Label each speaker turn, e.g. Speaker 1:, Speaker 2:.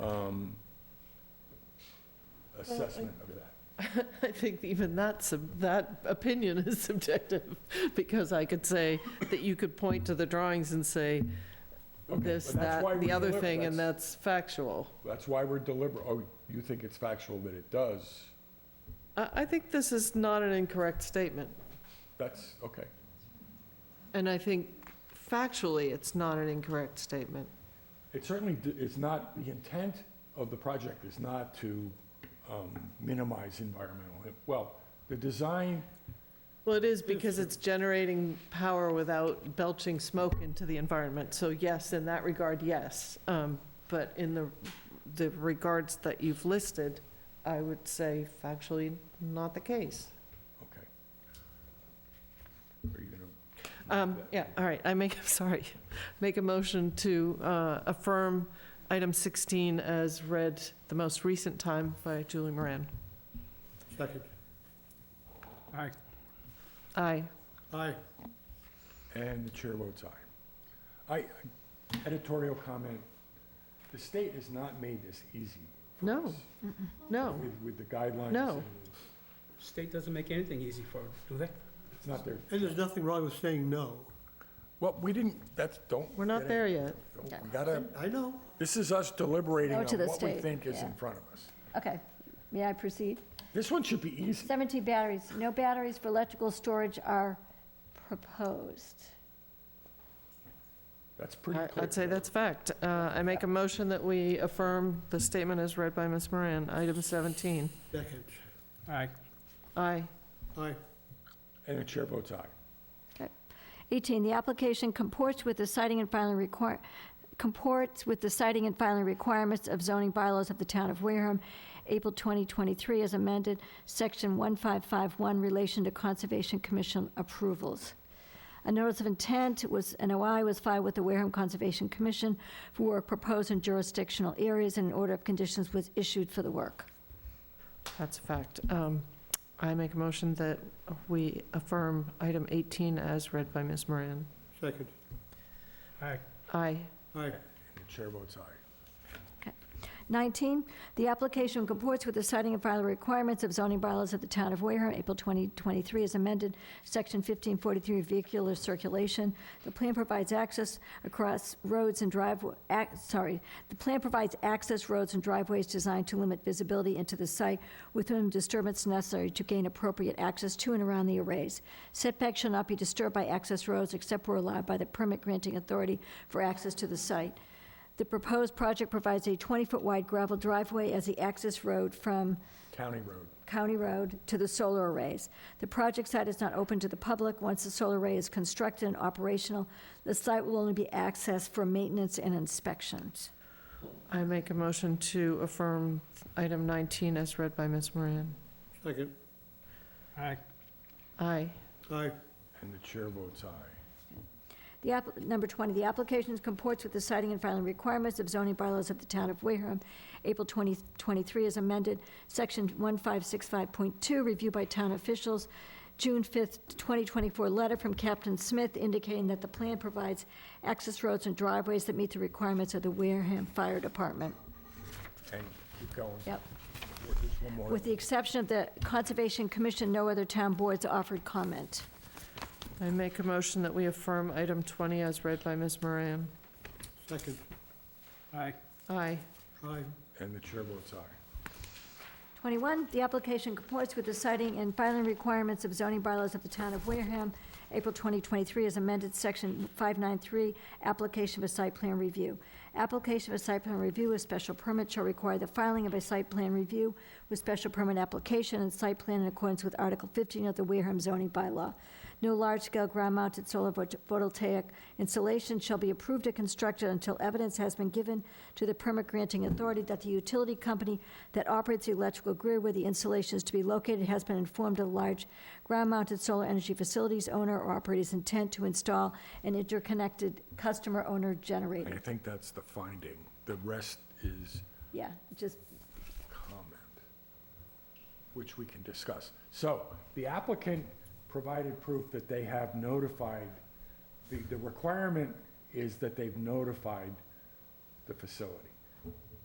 Speaker 1: um,
Speaker 2: Uh,
Speaker 1: assessment of that?
Speaker 2: I think even that's, sub- that opinion is subjective, because I could say that you could point to the drawings and say
Speaker 1: Okay,
Speaker 2: this,
Speaker 1: but that's why
Speaker 2: that,
Speaker 1: we
Speaker 2: the other
Speaker 1: deliver-
Speaker 2: thing, and
Speaker 1: that's-
Speaker 2: that's factual.
Speaker 1: That's why we're deliberate, oh, you think it's factual that it does?
Speaker 2: I, I think this is not an incorrect statement,
Speaker 1: That's, okay.
Speaker 2: and I think factually, it's not an incorrect statement.
Speaker 1: It certainly, d- it's not, the intent of the project is not to um, minimize environmental, im- well, the design,
Speaker 2: Well, it is because it's generating power without belching smoke into the environment. So yes, in that regard, yes. Um, But in the, the regards that you've listed, I would say factually not the case.
Speaker 1: okay. Are you gonna? make
Speaker 2: Um,
Speaker 1: that-
Speaker 2: Yeah, all right, I make, sorry, make a motion to uh, affirm item 16 as read the most recent time by Julie Moran.
Speaker 3: Second. Aye.
Speaker 2: Aye.
Speaker 3: Aye.
Speaker 1: And the chair votes aye. I, editorial comment, the state has not made this easy. for
Speaker 2: No,
Speaker 1: us
Speaker 2: No,
Speaker 1: with- With the guidelines.
Speaker 2: No.
Speaker 1: and
Speaker 4: State doesn't make anything easy for, it, do they?
Speaker 1: It's not their,
Speaker 3: And there's nothing wrong with saying no.
Speaker 1: well, we didn't, that's, don't.
Speaker 2: we're not
Speaker 1: get
Speaker 2: there
Speaker 1: it.
Speaker 2: yet.
Speaker 1: We gotta,
Speaker 3: I know.
Speaker 1: this is us deliberating
Speaker 5: Go
Speaker 1: on
Speaker 5: to the
Speaker 1: what we
Speaker 5: state,
Speaker 1: think is
Speaker 5: yeah.
Speaker 1: in front of us.
Speaker 5: Okay, may I proceed?
Speaker 1: This one should be easy.
Speaker 5: 17 batteries, no batteries for electrical storage are proposed.
Speaker 1: That's pretty
Speaker 2: I-
Speaker 1: clear.
Speaker 2: I'd say that's fact. Uh, I make a motion that we affirm the statement as read by Ms. Moran, item 17.
Speaker 3: Second.
Speaker 4: Aye.
Speaker 2: Aye.
Speaker 3: Aye.
Speaker 1: And the chair votes aye.
Speaker 5: 18, the application comports with the citing and filing require, comports with the citing and filing requirements of zoning bylaws of the town of Wareham, April 2023, as amended, section 1551, relation to Conservation Commission approvals. A notice of intent was, an OI was filed with the Wareham Conservation Commission for work proposed in jurisdictional areas, and an order of conditions was issued for the work.
Speaker 2: That's a fact. Um, I make a motion that we affirm item 18 as read by Ms. Moran.
Speaker 3: Second.
Speaker 4: Aye.
Speaker 2: Aye.
Speaker 3: Aye.
Speaker 1: And the chair votes aye.
Speaker 5: 19, the application comports with the citing and filing requirements of zoning bylaws of the town of Wareham, April 2023, as amended, Section 1543, vehicular circulation. The plan provides access across roads and driveway, sorry, the plan provides access roads and driveways designed to limit visibility into the site with whom disturbance necessary to gain appropriate access to and around the arrays. Setbacks shall not be disturbed by access roads except where allowed by the permit granting authority for access to the site. The proposed project provides a 20-foot wide gravel driveway as the access road from
Speaker 1: County road.
Speaker 5: County Road to the solar arrays. The project site is not open to the public. Once the solar array is constructed and operational, the site will only be accessed for maintenance and inspections.
Speaker 2: I make a motion to affirm item 19 as read by Ms. Moran.
Speaker 3: Second.
Speaker 4: Aye.
Speaker 2: Aye.
Speaker 3: Aye.
Speaker 1: And the chair votes aye.
Speaker 5: The app, number 20, the application comports with the citing and filing requirements of zoning bylaws of the town of Wareham, April 2023 as amended, section 1565.2, review by town officials, June 5th, 2024 letter from Captain Smith indicating that the plan provides access roads and driveways that meet the requirements of the Wareham Fire Department.
Speaker 1: And keep going.
Speaker 5: Yep.
Speaker 1: There's one more.
Speaker 5: With the exception of the Conservation Commission, no other town boards offered comment.
Speaker 2: I make a motion that we affirm item 20 as read by Ms. Moran.
Speaker 3: Second.
Speaker 4: Aye.
Speaker 2: Aye.
Speaker 3: Aye.
Speaker 1: And the chair votes aye.
Speaker 5: 21, the application comports with the citing and filing requirements of zoning bylaws of the town of Wareham, April 2023, as amended, section 593, application of a site plan review. Application of a site plan review with special permit shall require the filing of a site plan review with special permit application and site plan in accordance with Article 15 of the Wareham zoning bylaw. No large-scale ground-mounted solar photo- photovoltaic installation shall be approved or constructed until evidence has been given to the permit-granting authority that the utility company that operates the electrical grid where the installation is to be located has been informed of the large ground-mounted solar energy facilities owner or operator's intent to install an interconnected customer-owner
Speaker 1: I
Speaker 5: generator.
Speaker 1: think that's the finding. The rest is
Speaker 5: Yeah, just,
Speaker 1: comment, which we can discuss. So the applicant provided proof that they have notified, the, the requirement is that they've notified the facility.